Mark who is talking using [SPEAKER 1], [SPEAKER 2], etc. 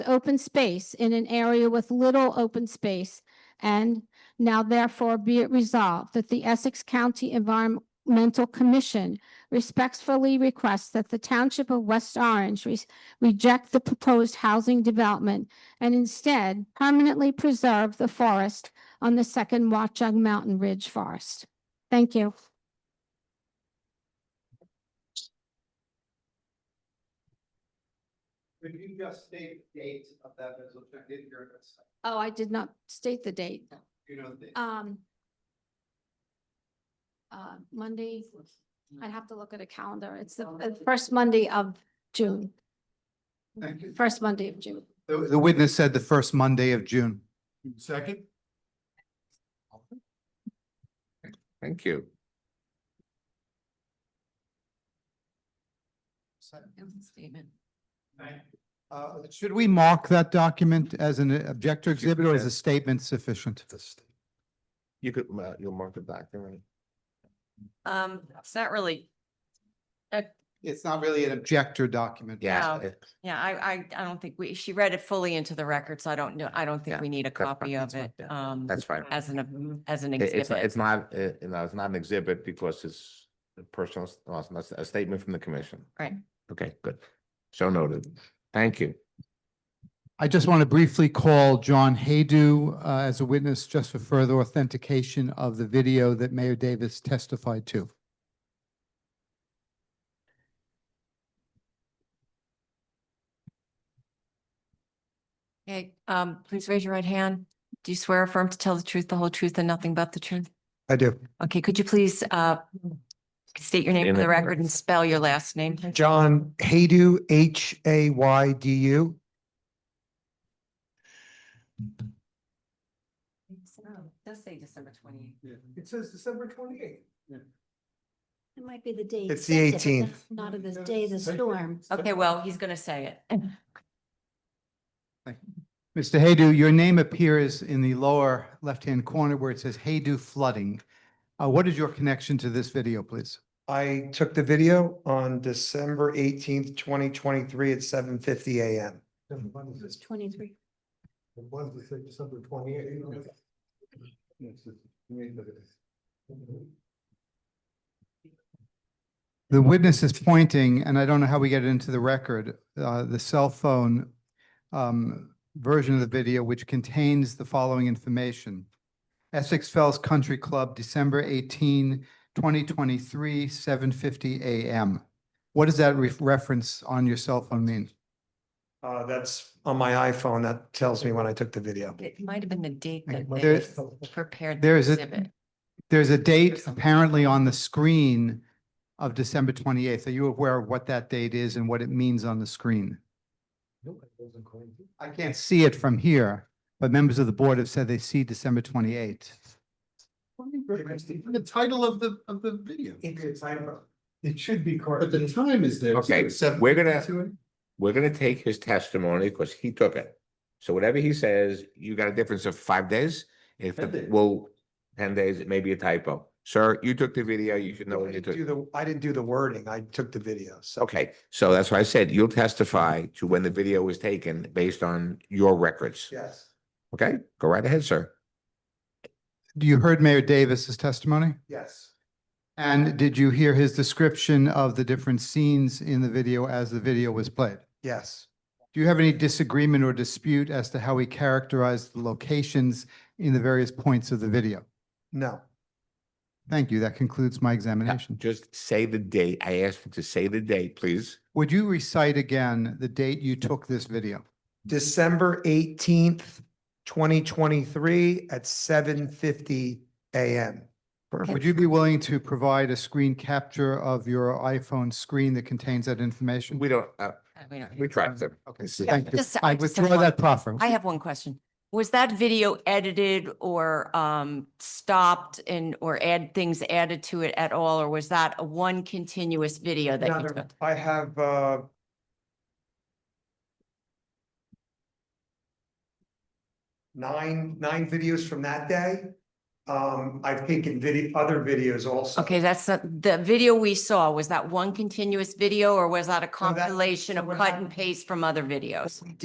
[SPEAKER 1] the open space in an area with little open space. And now therefore be it resolved that the Essex County Environmental Commission respectfully requests that the Township of West Orange re- reject the proposed housing development and instead permanently preserve the forest on the second Watchung Mountain Ridge Forest. Thank you.
[SPEAKER 2] Could you just state the date of that resolution? I didn't hear it.
[SPEAKER 1] Oh, I did not state the date.
[SPEAKER 2] You know, the,
[SPEAKER 1] Um. Uh, Monday, I'd have to look at a calendar. It's the uh, first Monday of June,
[SPEAKER 2] thank you.
[SPEAKER 1] first Monday of June.
[SPEAKER 2] The, the witness said the first Monday of June.
[SPEAKER 3] Second?
[SPEAKER 4] Thank you.
[SPEAKER 5] Statement.
[SPEAKER 2] Uh, should we mark that document as an objector exhibit or is a statement sufficient?
[SPEAKER 4] You could, uh, you'll mark it back, all right?
[SPEAKER 5] Um, it's not really,
[SPEAKER 2] It's not really an objector document.
[SPEAKER 4] Yeah,
[SPEAKER 5] No.
[SPEAKER 4] it-
[SPEAKER 5] yeah, I, I, I don't think we, she read it fully into the record, so I don't know, I don't think
[SPEAKER 4] Yeah,
[SPEAKER 5] we need a
[SPEAKER 4] fine,
[SPEAKER 5] copy
[SPEAKER 4] that's
[SPEAKER 5] of
[SPEAKER 4] fine,
[SPEAKER 5] it,
[SPEAKER 4] yeah,
[SPEAKER 5] um,
[SPEAKER 4] that's fine.
[SPEAKER 5] as an, as an
[SPEAKER 4] It- It's, not-
[SPEAKER 5] exhibit.
[SPEAKER 4] it's not, uh, no, it's not an exhibit because it's a personal, s- well, it's not a statement from the commission.
[SPEAKER 5] Right.
[SPEAKER 4] Okay, good. So noted. Thank you.
[SPEAKER 2] I just want to briefly call John Haydu, uh, as a witness just for further authentication of the video that Mayor Davis testified to.
[SPEAKER 5] Okay, um, please raise your right hand. Do you swear or affirm to tell the truth, the whole truth, and nothing but the truth?
[SPEAKER 2] I do.
[SPEAKER 5] Okay, could you please, uh, state your name
[SPEAKER 4] In
[SPEAKER 5] for the
[SPEAKER 4] the-
[SPEAKER 5] record and spell your last name?
[SPEAKER 6] John Haydu, H A Y D U.
[SPEAKER 5] Does say December twenty.
[SPEAKER 6] It says December twenty-eighth.
[SPEAKER 7] It might be the day.
[SPEAKER 6] It's the
[SPEAKER 7] accepted, but
[SPEAKER 6] 18th.
[SPEAKER 7] Not not of the day of the storm.
[SPEAKER 5] Okay, well, he's gonna say it.
[SPEAKER 2] Mr. Haydu, your name appears in the lower left-hand corner where it says Haydu Flooding. Uh, what is your connection to this video, please?
[SPEAKER 6] I took the video on December eighteenth, twenty twenty-three at seven fifty AM.
[SPEAKER 7] It's twenty-three.
[SPEAKER 2] The witness is pointing, and I don't know how we get it into the record, uh, the cell phone um, version of the video, which contains the following information. Essex Fells Country Club, December 18, 2023, 7:50 a.m. What does that ref- reference on your cell phone mean?
[SPEAKER 6] Uh, that's on my iPhone. That tells me when I took the video.
[SPEAKER 5] It might have been the date
[SPEAKER 2] Okay,
[SPEAKER 5] that
[SPEAKER 2] well,
[SPEAKER 5] they
[SPEAKER 2] there's-
[SPEAKER 5] prepared the
[SPEAKER 2] There is
[SPEAKER 5] exhibit.
[SPEAKER 2] a, there's a date
[SPEAKER 5] something.
[SPEAKER 2] apparently on the screen of December 28th. Are you aware of what that date is and what it means on the screen? I can't see it from here, but members of the board have said they see December 28th.
[SPEAKER 8] The title of the, of the video,
[SPEAKER 6] It should be
[SPEAKER 8] but
[SPEAKER 6] correct.
[SPEAKER 8] the time is there.
[SPEAKER 4] Okay, we're gonna, we're gonna take his testimony because he took it. So whatever he says, you got a difference of five days? If,
[SPEAKER 8] Ten days.
[SPEAKER 4] well, ten days, it may be a typo. Sir, you took the video, you should know
[SPEAKER 6] I
[SPEAKER 4] what you
[SPEAKER 6] didn't
[SPEAKER 4] took.
[SPEAKER 6] do the, I didn't do the wording. I took the video. So.
[SPEAKER 4] Okay, so that's why I said you'll testify to when the video was taken based on your records.
[SPEAKER 6] Yes.
[SPEAKER 4] Okay, go right ahead, sir.
[SPEAKER 2] You heard Mayor Davis's testimony?
[SPEAKER 6] Yes.
[SPEAKER 2] And did you hear his description of the different scenes in the video as the video was played?
[SPEAKER 6] Yes.
[SPEAKER 2] Do you have any disagreement or dispute as to how he characterized the locations in the various points of the video?
[SPEAKER 6] No.
[SPEAKER 2] Thank you. That concludes my examination.
[SPEAKER 4] Just say the date. I asked you to say the date, please.
[SPEAKER 2] Would you recite again the date you took this video?
[SPEAKER 6] December eighteenth, twenty twenty-three at seven fifty AM.
[SPEAKER 2] Would you be willing to provide a screen capture of your iPhone screen that contains that information?
[SPEAKER 4] We don't, uh,
[SPEAKER 5] Uh, we don't-
[SPEAKER 4] we tracked them.
[SPEAKER 2] Okay,
[SPEAKER 4] see.
[SPEAKER 2] thank you.
[SPEAKER 5] Just- I
[SPEAKER 2] I
[SPEAKER 5] just have
[SPEAKER 2] withdraw
[SPEAKER 5] one-
[SPEAKER 2] that proffer.
[SPEAKER 5] I have one question. Was that video edited or um stopped and or add things added to it at all? Or was that a one continuous video that you took?
[SPEAKER 6] I have, uh, nine, nine videos from that day. Um, I've taken video, other videos also.
[SPEAKER 5] Okay, that's not, the video we saw, was that one continuous video or was that a
[SPEAKER 6] that-
[SPEAKER 5] compilation
[SPEAKER 6] so
[SPEAKER 5] of
[SPEAKER 6] what
[SPEAKER 5] cut
[SPEAKER 6] happened-
[SPEAKER 5] and paste from other videos?